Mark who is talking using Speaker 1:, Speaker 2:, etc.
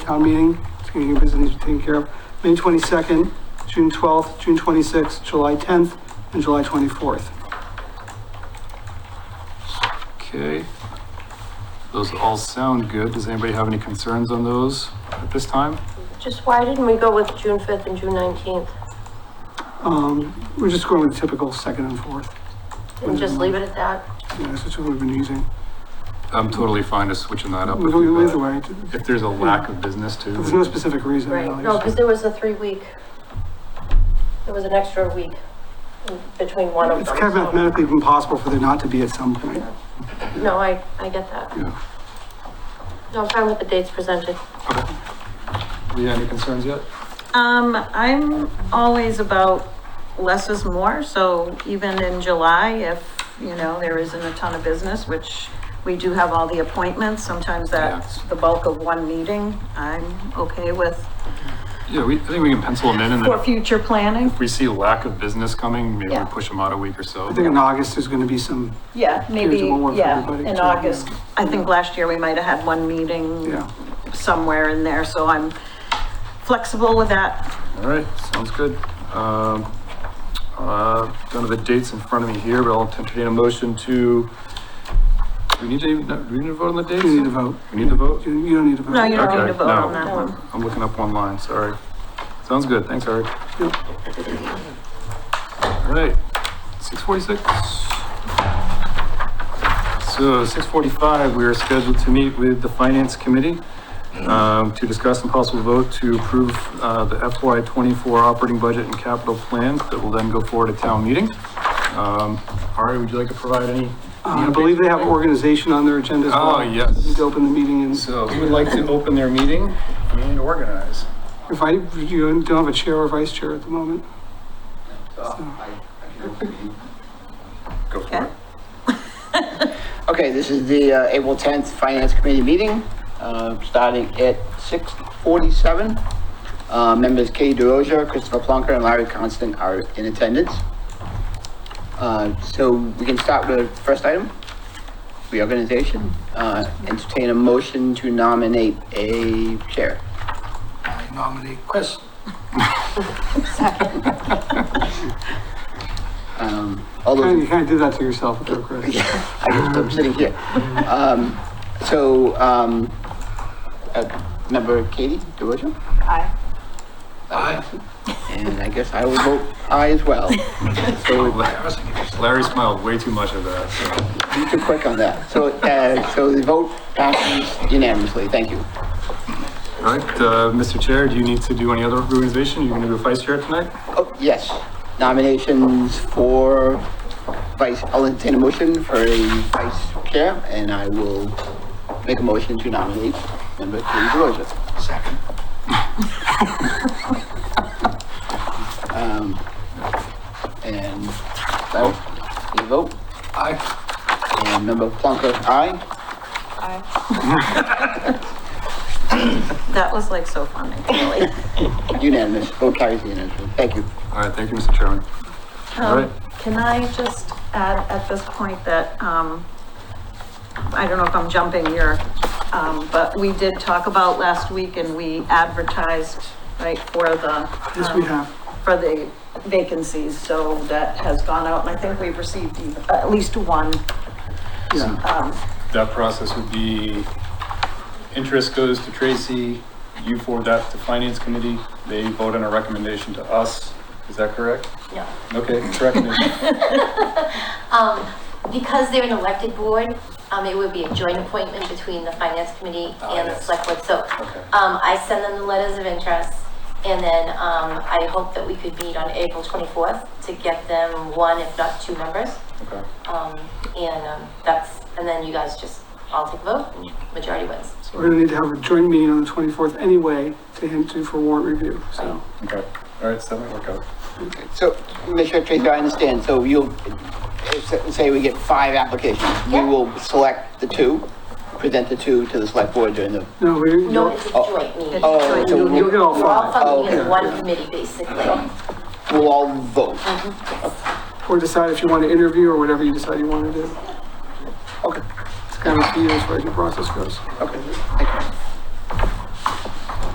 Speaker 1: town meeting, it's gonna get business taken care of, May twenty-second, June twelfth, June twenty-sixth, July tenth, and July twenty-fourth.
Speaker 2: Okay. Those all sound good. Does anybody have any concerns on those at this time?
Speaker 3: Just why didn't we go with June fifth and June nineteenth?
Speaker 1: Um, we're just going with typical second and fourth,
Speaker 3: And just leave it at that?
Speaker 1: yeah, that's what we've been using.
Speaker 2: I'm totally fine to switching that up. if
Speaker 1: We- we-
Speaker 2: we-
Speaker 1: Either way, it-
Speaker 2: If there's a lack of business too.
Speaker 1: there's no specific reason.
Speaker 3: Right,
Speaker 1: really.
Speaker 3: no, because there was a three-week, there was an extra week in between one of them.
Speaker 1: It's kind of
Speaker 3: so-
Speaker 1: mathematically impossible for there not to be at some point.
Speaker 3: No, I, I get that.
Speaker 2: Yeah.
Speaker 3: No, I'm fine with the dates presented.
Speaker 2: Okay. Leah, any concerns yet?
Speaker 4: Um, I'm always about less is more, so even in July, if, you know, there isn't a ton of business, which we do have all the appointments, sometimes that's the bulk of one meeting, I'm okay with
Speaker 2: Yeah, we, I think we can pencil them in and then
Speaker 4: for
Speaker 2: if
Speaker 4: future planning.
Speaker 2: we see lack of business coming, maybe we
Speaker 4: Yeah.
Speaker 2: push them out a week or so.
Speaker 1: I think in August, there's gonna be some,
Speaker 4: Yeah, maybe,
Speaker 1: Here's one for
Speaker 4: yeah,
Speaker 1: everybody
Speaker 4: in
Speaker 1: too,
Speaker 4: August.
Speaker 1: yeah.
Speaker 4: I think last year we might have had one meeting
Speaker 1: yeah.
Speaker 4: somewhere in there, so I'm flexible with that.
Speaker 2: All right, sounds good. Um, uh, Don't have the dates in front of me here, but I'll entertain a motion to, do we need to, do we need to vote on the dates?
Speaker 1: You need to vote.
Speaker 2: We need to vote?
Speaker 1: You you don't need to vote.
Speaker 4: No, you don't need to
Speaker 2: Okay,
Speaker 4: vote
Speaker 2: no.
Speaker 4: on that one.
Speaker 2: I'm looking up one line, sorry. Sounds good, thanks, Eric.
Speaker 1: Yep.
Speaker 2: All right, six forty-six. So six forty-five, we are scheduled to meet with the Finance Committee um, to discuss and possible vote to approve uh, the FY twenty-four operating budget and capital plan that will then go forward to town meeting. Um, Ari, would you like to provide any?
Speaker 1: Uh, I believe they have organization on their agenda as well.
Speaker 2: Oh, yes.
Speaker 1: Need to open the meeting and
Speaker 2: So we would like to open their meeting and organize.
Speaker 1: if I, you don't have a chair or vice chair at the moment.
Speaker 2: Go for
Speaker 4: Okay.
Speaker 2: it.
Speaker 5: Okay, this is the uh, April 10th Finance Committee meeting, uh, starting at 6:47. Uh, Members Katie DeRosa, Christopher Plonker, and Larry Constant are in attendance. Uh, So we can start with the first item, reorganization. Uh, Entertain a motion to nominate a chair.
Speaker 6: nominate Chris.
Speaker 5: Um, All those in
Speaker 1: You kind of did that to yourself, though, Chris.
Speaker 5: I just, I'm sitting here. Um, so, um, uh, member Katie DeRosa?
Speaker 4: Aye.
Speaker 5: Aye. And I guess I will vote aye as well.
Speaker 2: Larry smiled way too much at that, so.
Speaker 5: You too quick on that. So, uh, so the vote passes unanimously. Thank you.
Speaker 2: All right, uh, Mr. Chair, do you need to do any other organization? You're gonna do vice chair tonight?
Speaker 5: Oh, yes, nominations for vice, I'll entertain a motion for a vice chair and I will make a motion to nominate member Katie DeRosa.
Speaker 6: Second.
Speaker 5: Um, and that, you vote?
Speaker 6: Aye.
Speaker 5: And member Plonker, aye.
Speaker 4: That was like so funny, really.
Speaker 5: Unanimous, vote carries unanimously. Thank you.
Speaker 2: All right, thank you, Mr. Chairman. All right.
Speaker 4: Um, can I just add at this point that, um, I don't know if I'm jumping here, um, but we did talk about last week and we advertised, right, for the.
Speaker 1: Yes, we
Speaker 4: um,
Speaker 1: have.
Speaker 4: For the vacancies, so that has gone out and I think we've received e, at least one.
Speaker 1: Yeah,
Speaker 2: That process would be, interest goes to Tracy, you forward that to Finance Committee, they vote on a recommendation to us, is that correct?
Speaker 7: No.
Speaker 2: Okay, correct me.
Speaker 7: Um, because they're an elected board, um, it would be a joint appointment between the finance committee
Speaker 2: Ah,
Speaker 7: and the
Speaker 2: yes.
Speaker 7: select board, so,
Speaker 2: Okay.
Speaker 7: um, I send them the letters of interest, and then, um, I hope that we could meet on April twenty-fourth to get them one, if not two members,
Speaker 2: Okay,
Speaker 7: um, and, um, that's, and then you guys just all take a vote, and majority wins.
Speaker 1: so we're gonna need to have a joint meeting on the twenty-fourth anyway to hint to for warrant review, so.
Speaker 2: okay, all right, so that might work out.
Speaker 5: So, Mr. Tracy, I understand, so you'll, if- say we get five applications, we
Speaker 7: Yeah.
Speaker 5: will select the two, present the two to the select board during the,
Speaker 1: No, we,
Speaker 7: No,
Speaker 1: you'll
Speaker 7: it's a joint meeting.
Speaker 4: Oh,
Speaker 5: oh, so
Speaker 1: you'll get
Speaker 5: we'll,
Speaker 1: all
Speaker 7: We're all
Speaker 1: five,
Speaker 7: functioning
Speaker 5: Oh,
Speaker 7: as
Speaker 5: yeah,
Speaker 7: one
Speaker 1: yeah.
Speaker 7: committee, basically.
Speaker 5: we'll all vote.
Speaker 1: or decide if you want to interview or whatever you decide you want to do.
Speaker 5: Okay,
Speaker 1: It's kind of up to you as far as your process goes.
Speaker 5: okay, thank